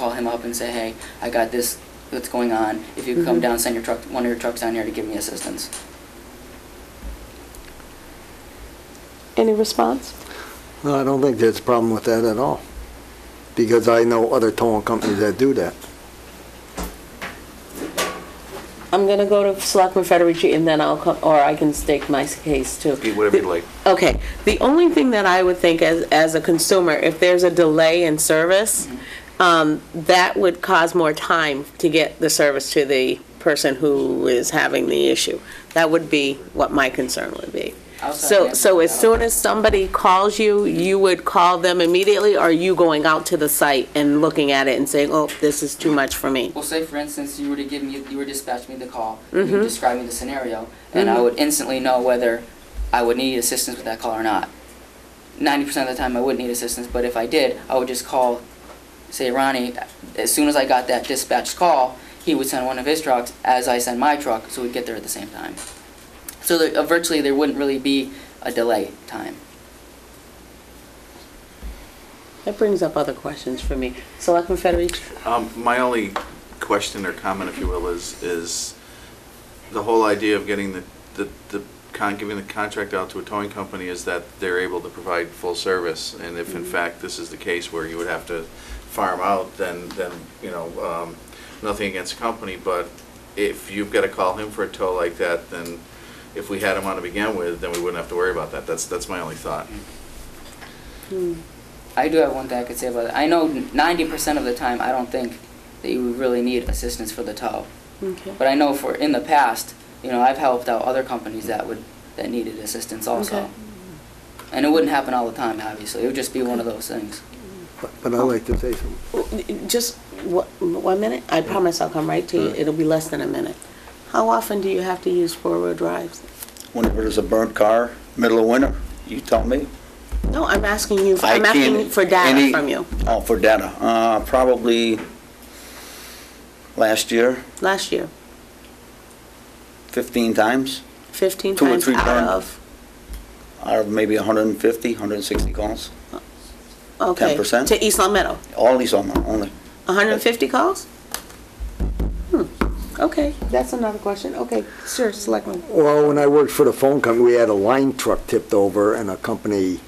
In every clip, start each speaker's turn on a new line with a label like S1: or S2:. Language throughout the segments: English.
S1: call him up and say, hey, I got this that's going on. If you could come
S2: Mhm.
S1: down, send your truck, one of your trucks down here to give me assistance.
S2: Any response?
S3: No, I don't think there's a problem with that at all, because I know other towing companies that do that.
S2: I'm going to go to Selectman Federici, and then I'll, co- or I can stake my case too.
S4: Eat whatever you'd like.
S2: Okay, the only thing that I would think as, as a consumer, if there's a delay in service, um, that would cause more time to get the service to the person who is having the issue. That would be what my concern would be.
S1: Also,
S2: So,
S1: yeah,
S2: so as
S1: uh,
S2: soon as somebody calls you, you would call them immediately, or are you going out to the site and looking at it and saying, oh, this is too much for me?
S1: Well, say for instance, you were to give me, you were to dispatch me the call, you would describe me the scenario, and I would instantly know whether I would need assistance with that call or not. Ninety percent of the time, I would need assistance, but if I did, I would just call, say Ronnie. As soon as I got that dispatched call, he would send one of his trucks as I send my truck, so we'd get there at the same time. So there, uh, virtually, there wouldn't really be a delay time.
S2: That brings up other questions for me. Selectman Federici?
S4: Um, My only question or comment, if you will, is, is the whole idea of getting the, the, the con, giving the contract out to a towing company is that they're able to provide full service. And if in fact this is the case where you would have to farm out, then, then, you know, um, nothing against the company, but if you've got to call him for a tow like that, then if we had him on to begin with, then we wouldn't have to worry about that. That's, that's my only thought.
S1: I do have one thing I could say about it. I know ninety percent of the time, I don't think that you would really need assistance for the tow.
S2: Okay.
S1: But I know for, in the past, you know, I've helped out other companies that would, that needed assistance
S2: Okay.
S1: also. And it wouldn't happen all the time, obviously, it would just be one of those things.
S3: But- But I'd like to say something.
S2: Just wha- one minute? I promise I'll come right to you. It'll be less than a minute. How often do you have to use four-wheel drives?
S5: whenever there's a burnt car, middle of winter, you tell me.
S2: No, I'm asking you,
S5: I
S2: I'm asking
S5: can't-
S2: for data
S5: any-
S2: from you,
S5: Oh, for data, uh, probably last year,
S2: last year,
S5: 15 times,
S2: 15
S5: Two or
S2: times
S5: three
S2: out
S5: times.
S2: of?
S5: out of maybe 150, 160 calls,
S2: Okay,
S5: 10%?
S2: To East Long Meadow,
S5: all these on my, only.
S2: 150 calls? Hmm, okay, that's another question. Okay, sure, Selectman.
S3: Well, when I worked for the phone company, we had a line truck tipped over and a company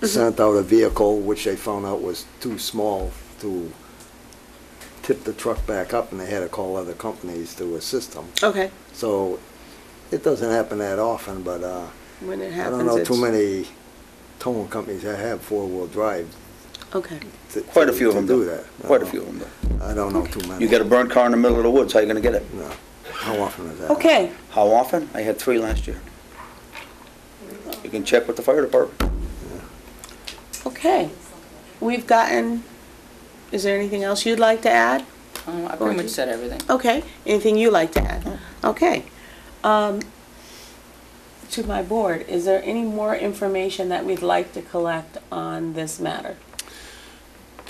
S5: Mm-hmm.
S3: sent out a vehicle, which they found out was too small to tip the truck back up and they had to call other companies to assist them.
S2: Okay,
S3: So it doesn't happen that often, but, uh,
S2: when it
S3: I
S2: happens,
S3: don't know
S2: it's-
S3: too many towing companies that have four-wheel drive
S2: Okay,
S3: to
S5: Quite a few of
S3: to
S5: them
S3: do
S5: do.
S3: that. Uh, I
S5: Quite a
S3: don't-
S5: few of them do.
S3: I don't know too many.
S5: You get a burnt car in the middle of the woods, how you gonna get it?
S3: No. How often is that?
S2: okay,
S5: How often? I had three last year. You can check with the fire department.
S2: okay. We've gotten, is there anything else you'd like to add?
S1: Um, I pretty much said everything.
S2: Okay, anything you like to add? Okay. Um, To my board, is there any more information that we'd like to collect on this matter?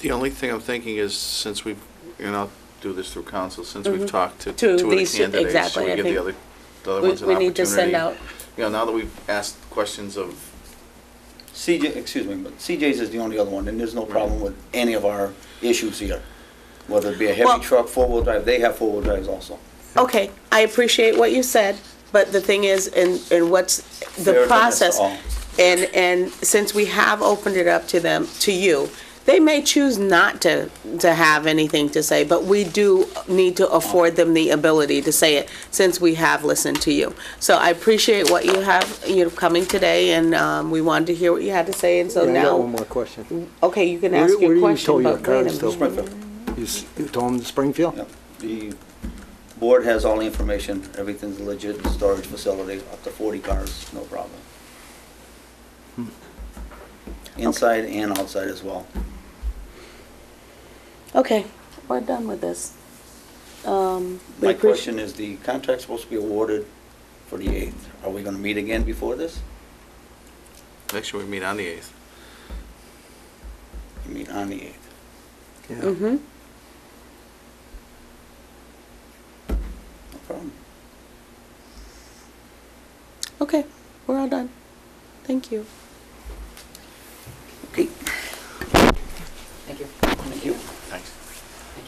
S4: The only thing I'm thinking is, since we've, and I'll do this through council, since we've talked to two
S2: Mm-hmm. To
S4: of the
S2: these two-
S4: candidates,
S2: exactly,
S4: should
S2: I
S4: we give
S2: think
S4: the other, the other
S2: We
S4: ones an
S2: we
S4: opportunity?
S2: need to send out,
S4: You know, now that we've asked questions of,
S5: CJ, excuse me, but CJ's is the only other one, and there's no problem with any of our issues here. Whether it be a
S2: Well-
S5: heavy truck, four-wheel drive, they have four-wheel drives also.
S2: okay, I appreciate what you said, but the thing is, and, and what's the
S5: Fair address to
S2: process?
S5: all.
S2: And, and since we have opened it up to them, to you, they may choose not to, to have anything to say, but we do need to afford them the ability to say it, since we have listened to you. So I appreciate what you have, you know, coming today, and um, we wanted to hear what you had to say, and so
S3: Yeah, I got one
S2: now,
S3: more question.
S2: okay, you can
S3: Where-
S2: ask
S3: where do
S2: your
S3: you
S2: question,
S3: tow your
S2: but wait
S3: cars
S2: a
S3: to?
S2: minute.
S5: Springfield.
S3: You s- you told them to Springfield?
S5: Yep. The board has all the information, everything's legit, storage facility, up to 40 cars, no problem.
S2: Hmm.
S5: Inside and outside as well.
S2: Okay, we're done with this. Um, we
S5: My
S2: appreci-
S5: question is, the contract's supposed to be awarded for the 8th. Are we going to meet again before this?
S4: next year we meet on the 8th.
S5: You mean on the 8th?
S3: Yeah.
S2: Mhm.
S5: No problem.
S2: Okay, we're all done. Thank you.